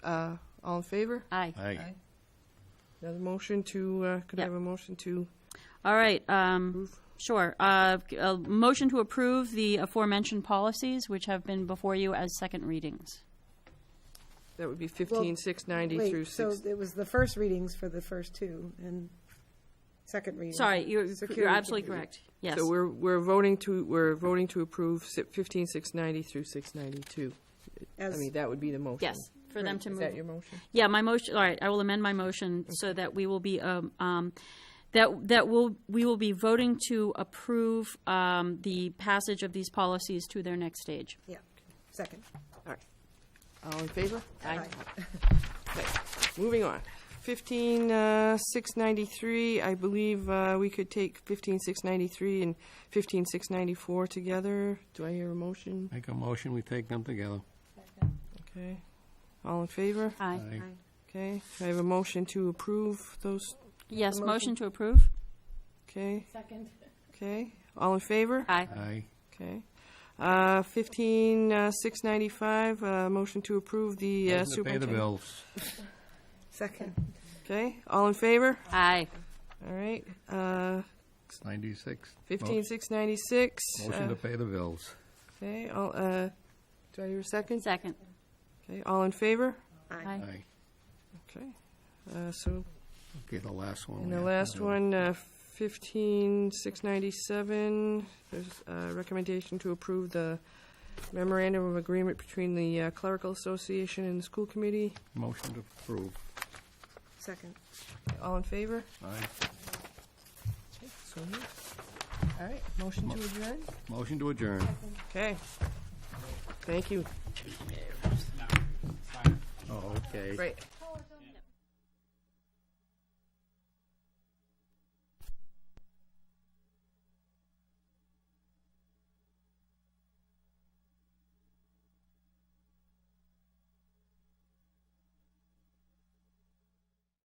Uh, all in favor? Aye. Aye. Another motion to, uh, could I Yep. have a motion to All right, um, approve? sure. Uh, a motion to approve the aforementioned policies, which have been before you as second readings. That would be fifteen, six ninety through Wait, so six. it was the first readings for the first two and second reading. Sorry, you're, you're Security absolutely committee. correct. Yes. So we're, we're voting to, we're voting to approve si- fifteen, six ninety through six ninety-two. I As- mean, that would be the motion. Yes, for them Right, to Is that move- your motion? Yeah, my motion, all right, I will amend my motion so that we will be, um, um, that, that will, we will be voting to approve, um, the passage of these policies to their next stage. Yeah, second. All right. All in favor? Aye. Okay, moving on. Fifteen, uh, six ninety-three, I believe, uh, we could take fifteen, six ninety-three and fifteen, six ninety-four together. Do I hear a motion? Make a motion, we take them together. Okay. All in favor? Aye. Okay, I have a motion to approve those, Yes, Motion. motion to approve? okay, Second. okay, all in favor? Aye. Aye. Okay. Uh, fifteen, uh, six ninety-five, uh, motion to approve the uh, Motion to Pay the superintendent. bills. Second. Okay, all in favor? Aye. All right, uh, Ninety-six. fifteen, six ninety-six. uh, Motion to pay the bills. Okay, all, uh, do I hear a second? Second. Okay, all in favor? Aye. Aye. Okay, uh, so, Okay, the last one. and we the have to last do. one, uh, fifteen, six ninety-seven, there's a recommendation to approve the memorandum of agreement between the uh, clerical association and the school committee. Motion to approve. Second. All in favor? Aye. So moved. All right, motion to adjourn? Motion to adjourn. Okay. Thank you. Oh, okay. Great.